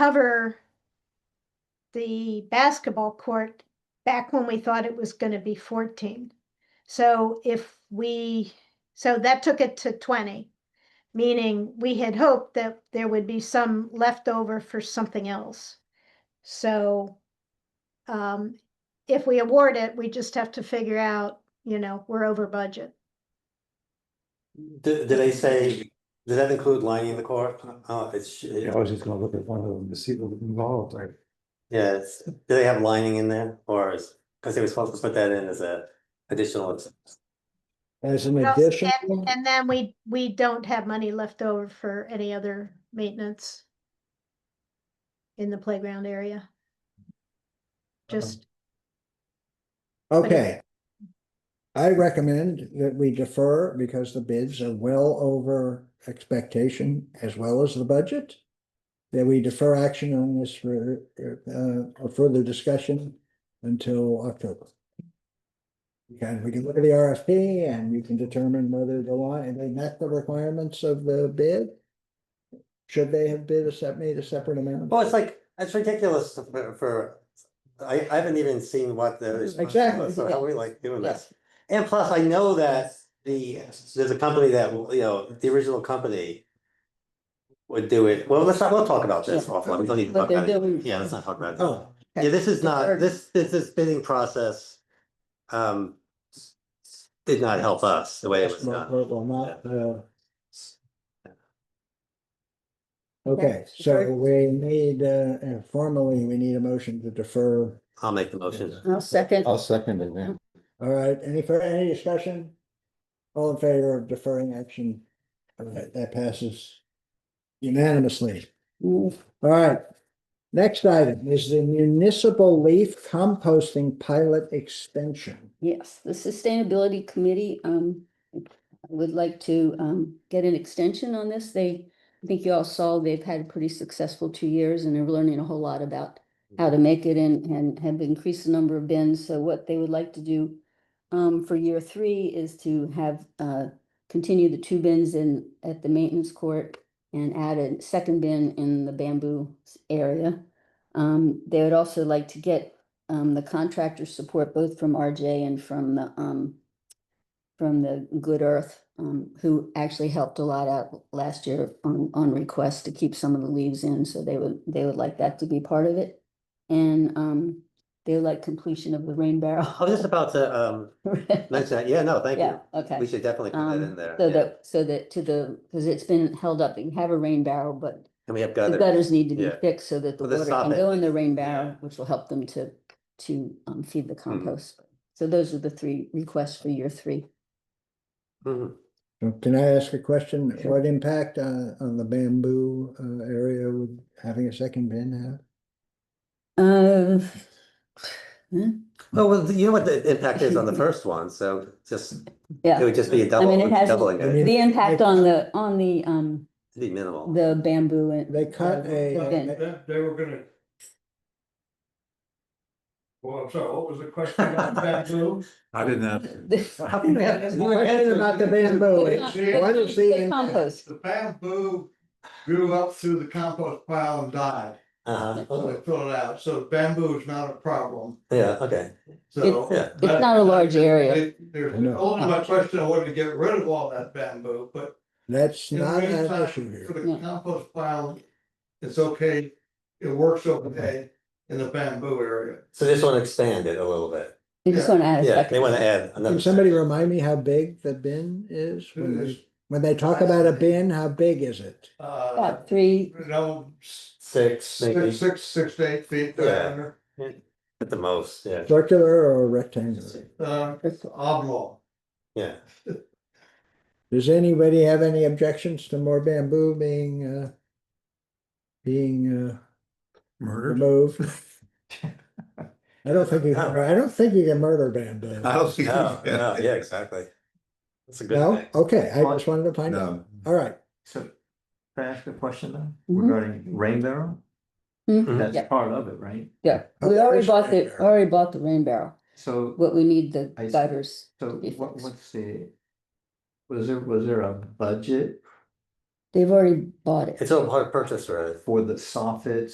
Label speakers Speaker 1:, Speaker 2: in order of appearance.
Speaker 1: cover the basketball court back when we thought it was gonna be fourteen. So if we, so that took it to twenty, meaning we had hoped that there would be some leftover for something else. So um, if we award it, we just have to figure out, you know, we're over budget.
Speaker 2: Did, did they say, does that include lining the court? Oh, it's,
Speaker 3: Yeah, I was just gonna look at one of them to see what was involved, like,
Speaker 2: yeah, it's, do they have lining in there or is, because they were supposed to put that in as a additional. ex-
Speaker 3: as an
Speaker 1: Well,
Speaker 3: addition.
Speaker 1: And then we, we don't have money left over for any other maintenance in the playground area. Just,
Speaker 4: Okay. I recommend that we defer because the bids are well over expectation as well as the budget. That we defer action on this for uh, a further discussion until October. And we can look at the RFP and you can determine whether the line, and they met the requirements of the bid. Should they have bid a set, made a separate amount?
Speaker 2: Well, it's like, it's ridiculous for, for- I, I haven't even seen what the. response
Speaker 4: Exactly.
Speaker 2: was, So how are we like doing this? And plus, I know that the, there's a company that, will- you know, the original company. Would do it, well, let's not, we'll talk about this
Speaker 4: Yeah.
Speaker 2: offline, we don't need to
Speaker 5: But
Speaker 2: talk
Speaker 5: they're
Speaker 2: about it,
Speaker 5: doing-
Speaker 2: yeah, let's not talk about it.
Speaker 4: Oh,
Speaker 2: Yeah, this is not,
Speaker 5: Or-
Speaker 2: this, this, this bidding process. Um. Did not help us the way it was done.
Speaker 4: well, well, not, uh, Okay,
Speaker 5: Yes,
Speaker 4: so
Speaker 5: defer.
Speaker 4: we need, uh, uh, formally, we need a motion to defer.
Speaker 2: I'll make the motion.
Speaker 5: I'll second.
Speaker 2: Oh.
Speaker 3: I'll second it, yeah.
Speaker 4: All right, any further, any discussion? All in favor of deferring action? All right, that passes unanimously.
Speaker 5: Move.
Speaker 4: All right. Next item is the municipal leaf composting pilot extension.
Speaker 5: Yes, the Sustainability Committee, um, would like to, um, get an extension on this. They, I think you all saw, they've had a pretty successful two years and they're learning a whole lot about how to make it and, and have increased the number of bins. So what they would like to do um, for year three is to have, uh, continue the two bins in, at the maintenance court and add a second bin in the bamboo s- area. Um, they would also like to get, um, the contractor support both from RJ and from the, um, from the Good Earth, um, who actually helped a lot out last year on, on request to keep some of the leaves in. So they would, they would like that to be part of it. And, um, they would like completion of the rain barrel.
Speaker 2: I was just about to um mention that, yeah, no, thank
Speaker 5: Yeah,
Speaker 2: you.
Speaker 5: okay.
Speaker 2: We should definitely put that
Speaker 5: Um,
Speaker 2: in there.
Speaker 5: So
Speaker 2: yeah.
Speaker 5: that, so that to the, because it's been held up, you have a rain barrel, but
Speaker 2: And we have
Speaker 5: the
Speaker 2: gutter.
Speaker 5: gutters need to be
Speaker 2: yeah.
Speaker 5: fixed so that the
Speaker 2: Well, the
Speaker 5: water can
Speaker 2: soffit,
Speaker 5: go in the rain
Speaker 2: yeah. Mm-hmm.
Speaker 5: barrel, which will help them to, to um, feed the compost. So those are the three requests for year three.
Speaker 2: Mhm.
Speaker 4: So Can I ask a question? What impact, uh, on the bamboo, uh, area would having a second bin have?
Speaker 5: Uh, hmm,
Speaker 2: Oh, well, you know what the impact is on the first one, so just, it
Speaker 5: yeah,
Speaker 2: would just be a
Speaker 5: I
Speaker 2: double,
Speaker 5: mean, it has,
Speaker 2: doubling it,
Speaker 5: the impact on the, on the, um,
Speaker 2: it'd be minimal.
Speaker 5: the bamboo and. uh,
Speaker 4: They cut
Speaker 5: the-
Speaker 4: a-
Speaker 5: the
Speaker 4: a-
Speaker 5: bin.
Speaker 4: a-
Speaker 6: That, they were gonna. Well, I'm sorry, what was the question on bamboo?
Speaker 3: I didn't have.
Speaker 2: How can we have-
Speaker 4: The Question about the bamboo, it's- what is the
Speaker 5: The compost.
Speaker 6: The bamboo grew up through the compost pile and died,
Speaker 2: Uh-huh.
Speaker 6: so
Speaker 4: Oh.
Speaker 6: they filled it out, so bamboo is not a problem,
Speaker 2: Yeah, okay.
Speaker 6: so.
Speaker 2: Yeah.
Speaker 5: It's not a large area.
Speaker 6: It- There's
Speaker 4: I know.
Speaker 6: only my question, of whether to get rid of all that bamboo, but
Speaker 4: That's
Speaker 6: in the
Speaker 4: not an
Speaker 6: meantime,
Speaker 4: issue here.
Speaker 6: For the
Speaker 5: Yeah.
Speaker 6: compost pile, it's okay, it works okay in the bamboo area.
Speaker 2: So this one expanded a little bit.
Speaker 5: They just want to add a
Speaker 2: Yeah, they
Speaker 5: second.
Speaker 2: want to add
Speaker 4: Can
Speaker 2: another.
Speaker 4: somebody remind me how big the bin is? When
Speaker 6: It is.
Speaker 4: they, when they talk about a bin, how big is it?
Speaker 6: Uh,
Speaker 5: About three,
Speaker 6: no, s-
Speaker 2: Six, maybe,
Speaker 6: six, six, six to eight feet
Speaker 2: Yeah.
Speaker 6: diameter,
Speaker 2: at the most, yeah,
Speaker 4: Circular or rectangular?
Speaker 6: uh, it's oblong.
Speaker 2: yeah.
Speaker 4: Does anybody have any objections to more bamboo being, uh, being, uh,
Speaker 3: Murdered.
Speaker 4: removed? I don't think you, can- I don't think you can murder bamboo.
Speaker 3: don't think.
Speaker 2: No, no, yeah, exactly. That's a good
Speaker 4: No?
Speaker 2: thing.
Speaker 4: Okay, I just wanted to find out.
Speaker 3: No.
Speaker 4: All right.
Speaker 7: So, can I ask a question though,
Speaker 5: Mhm.
Speaker 7: regarding rain barrel?
Speaker 5: Mhm. Yeah.
Speaker 7: That's part of it, right?
Speaker 5: yeah, we already bought the, already bought the rain barrel.
Speaker 7: So,
Speaker 5: What we need the
Speaker 7: I see.
Speaker 5: gutters.
Speaker 7: so
Speaker 5: be
Speaker 7: what,
Speaker 5: fixed.
Speaker 7: what's the? Was there, was there a budget
Speaker 5: They've already bought it.
Speaker 2: It's a hard purchase, right?
Speaker 7: for the soffits